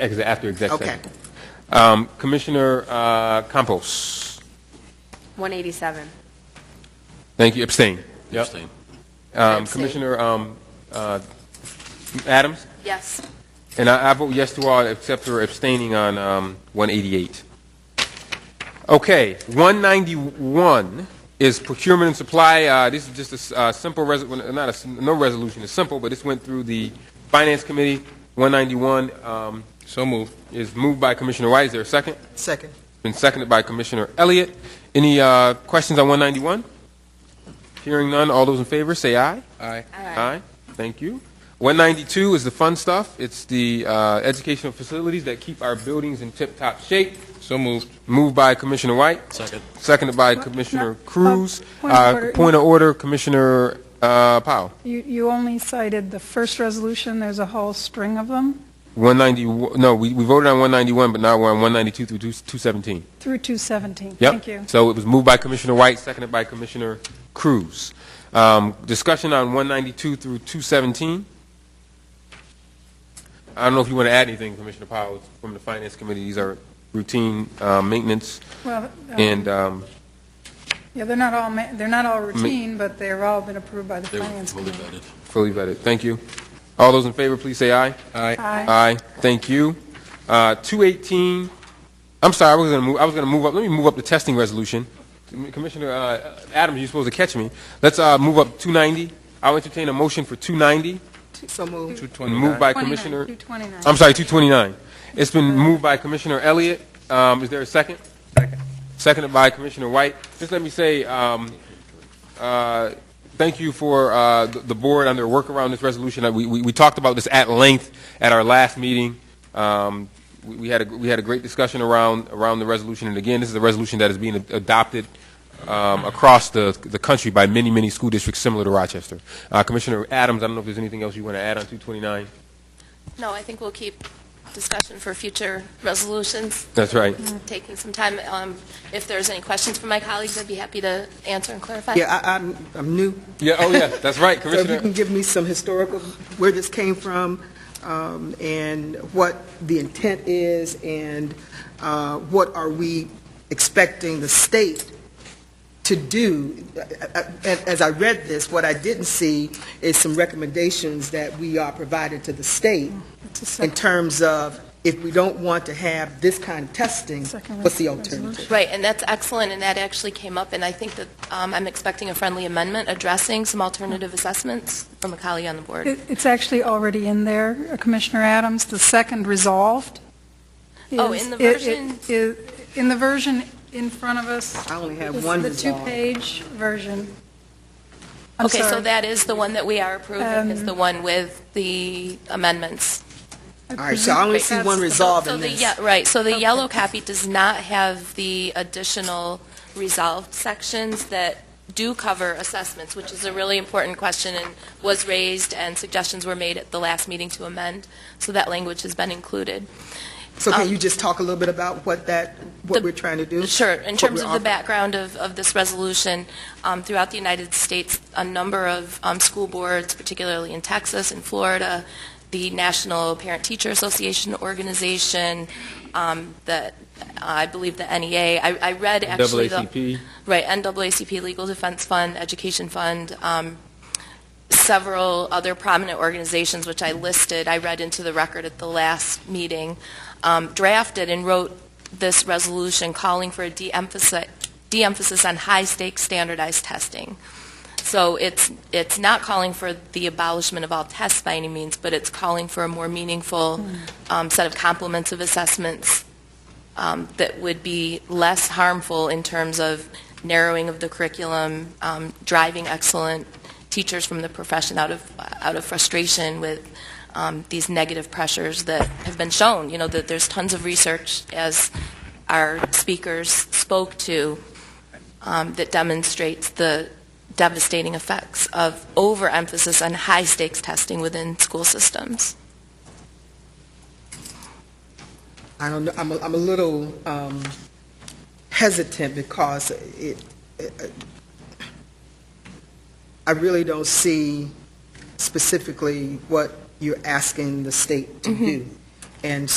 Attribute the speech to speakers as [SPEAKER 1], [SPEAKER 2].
[SPEAKER 1] Ex- After exec
[SPEAKER 2] Okay.
[SPEAKER 1] session. Um, Commissioner uh, Campos,
[SPEAKER 3] 187.
[SPEAKER 1] thank you, abstain. Yep.
[SPEAKER 4] Abstain.
[SPEAKER 1] Um,
[SPEAKER 3] Abstain.
[SPEAKER 1] Commissioner um, uh, Adams,
[SPEAKER 3] Yes.
[SPEAKER 1] and I I vote yes to all except for abstaining on um, 188. Okay, 191 is procurement and supply. Uh, This is just a s- uh, simple, res- well, not a, s- no resolution, it's simple, but this went through the Finance Committee. 191 um,
[SPEAKER 4] So moved.
[SPEAKER 1] is moved by Commissioner White, is there a second?
[SPEAKER 2] Second.
[SPEAKER 1] Been seconded by Commissioner Elliott. Any uh, questions on 191? Hearing none, all those in favor, say aye.
[SPEAKER 4] Aye.
[SPEAKER 1] Aye. Thank you. 192 is the fun stuff. It's the uh, educational facilities that keep our buildings in tip-top shape.
[SPEAKER 4] So moved.
[SPEAKER 1] Moved by Commissioner White,
[SPEAKER 4] Second.
[SPEAKER 1] seconded by Commissioner Cruz.
[SPEAKER 5] point of
[SPEAKER 1] Uh,
[SPEAKER 5] order.
[SPEAKER 1] Point of order, Commissioner uh, Powell.
[SPEAKER 5] You, you only cited the first resolution, there's a whole string of them,
[SPEAKER 1] 191, no, we we voted on 191, but now we're on 192 through 217.
[SPEAKER 5] through 217.
[SPEAKER 1] Yep.
[SPEAKER 5] Thank you.
[SPEAKER 1] So it was moved by Commissioner White, seconded by Commissioner Cruz. Um, discussion on 192 through 217. I don't know if you want to add anything, Commissioner Powell, from the Finance Committee. These are routine uh, maintenance
[SPEAKER 5] Well, um,
[SPEAKER 1] and, um,
[SPEAKER 5] Yeah, they're not all, ma- they're not all routine, but they've all been approved by the
[SPEAKER 4] They were
[SPEAKER 5] Finance
[SPEAKER 4] fully
[SPEAKER 5] Committee.
[SPEAKER 4] vetted.
[SPEAKER 1] fully vetted. Thank you. All those in favor, please say aye.
[SPEAKER 4] Aye.
[SPEAKER 5] Aye.
[SPEAKER 1] Aye. Thank you. Uh, 218, I'm sorry, I was going to move, I was going to move up, let me move up the testing resolution. Commissioner uh, Adams, you're supposed to catch me. Let's uh, move up 290. I'll entertain a motion for 290,
[SPEAKER 2] So moved.
[SPEAKER 1] moved by
[SPEAKER 5] 29,
[SPEAKER 1] Commissioner, Um,
[SPEAKER 5] 229.
[SPEAKER 1] I'm sorry, 229. It's been moved by Commissioner Elliott. Um, Is there a second? Second. Seconded by Commissioner White. Just let me say, um, uh, thank you for uh, the the board on their work around this resolution. Uh, We we- we talked about this at length at our last meeting. Um, We we had, a we had a great discussion around, around the resolution, and again, this is a resolution that is being ad- adopted um, across the, the country by many, many school districts similar to Rochester. Uh, Commissioner Adams, I don't know if there's anything else you want to add on 229?
[SPEAKER 6] No, I think we'll keep discussion for future resolutions,
[SPEAKER 1] That's right.
[SPEAKER 6] taking some time. Um, If there's any questions from my colleagues, I'd be happy to answer and clarify.
[SPEAKER 2] Yeah, I, I'm, I'm new.
[SPEAKER 1] Yeah, oh, yeah, that's right,
[SPEAKER 2] So if you
[SPEAKER 1] Commissioner.
[SPEAKER 2] can give me some historical, where this came from, um, and what the intent is, and, uh, what are we expecting the state to do? Uh, uh, And as I read this, what I didn't see is some recommendations that we are provided to the state
[SPEAKER 5] It's a
[SPEAKER 2] in
[SPEAKER 5] sec-
[SPEAKER 2] terms of if we don't want to have this kind of testing,
[SPEAKER 5] second
[SPEAKER 2] what's the
[SPEAKER 5] res-
[SPEAKER 2] alternative?
[SPEAKER 5] resolution.
[SPEAKER 6] Right, and that's excellent, and that actually came up, and I think that um, I'm expecting a friendly amendment addressing some alternative assessments from a colleague on the board.
[SPEAKER 5] It- It's actually already in there, uh, Commissioner Adams, the second resolved.
[SPEAKER 6] Oh,
[SPEAKER 5] is-
[SPEAKER 6] in the
[SPEAKER 5] it- it-
[SPEAKER 6] version-
[SPEAKER 5] is- In the version in front of us.
[SPEAKER 2] I only have
[SPEAKER 5] is
[SPEAKER 2] one
[SPEAKER 5] The
[SPEAKER 2] resolved.
[SPEAKER 5] two-page version. I'm
[SPEAKER 6] Okay, so
[SPEAKER 5] sorry.
[SPEAKER 6] that is the one that we are approving, is
[SPEAKER 5] Um,
[SPEAKER 6] the one with the amendments.
[SPEAKER 5] I
[SPEAKER 2] All right, so I only
[SPEAKER 5] presume
[SPEAKER 2] see
[SPEAKER 5] that's
[SPEAKER 2] one
[SPEAKER 5] the-
[SPEAKER 2] resolve
[SPEAKER 6] So
[SPEAKER 2] in
[SPEAKER 6] the,
[SPEAKER 2] this.
[SPEAKER 6] yeah, right, so the yellow copy does not have the additional resolved sections that do cover assessments, which is a really important question and was raised, and suggestions were made at the last meeting to amend, so that language has been included.
[SPEAKER 2] So can
[SPEAKER 6] Um,
[SPEAKER 2] you just talk a little bit about what that, what
[SPEAKER 6] The-
[SPEAKER 2] we're trying to do?
[SPEAKER 6] Sure. In
[SPEAKER 2] What
[SPEAKER 6] terms
[SPEAKER 2] we're
[SPEAKER 6] of the
[SPEAKER 2] offering?
[SPEAKER 6] background of, of this resolution, um, throughout the United States, a number of um, school boards, particularly in Texas and Florida, the National Parent Teacher Association organization, um, the, I believe the NEA, I, I read actually the...
[SPEAKER 1] NAACP.
[SPEAKER 6] Right, NAACP Legal Defense Fund, Education Fund, um, several other prominent organizations, which I listed, I read into the record at the last meeting, um, drafted and wrote this resolution calling for a de-emphasi- de-emphasis on high-stakes standardized testing. So it's, it's not calling for the abolishment of all tests by any means, but it's calling for a more meaningful um, set of complements of assessments um, that would be less harmful in terms of narrowing of the curriculum, um, driving excellent teachers from the profession out of, out of frustration with um, these negative pressures that have been shown. You know, that there's tons of research, as our speakers spoke to, um, that demonstrates the devastating effects of overemphasis on high-stakes testing within school systems.
[SPEAKER 2] I don't know, I'm, a- I'm a little um, hesitant because it, it- I really don't see
[SPEAKER 6] Mm-hmm.
[SPEAKER 2] specifically what you're asking the state to do. And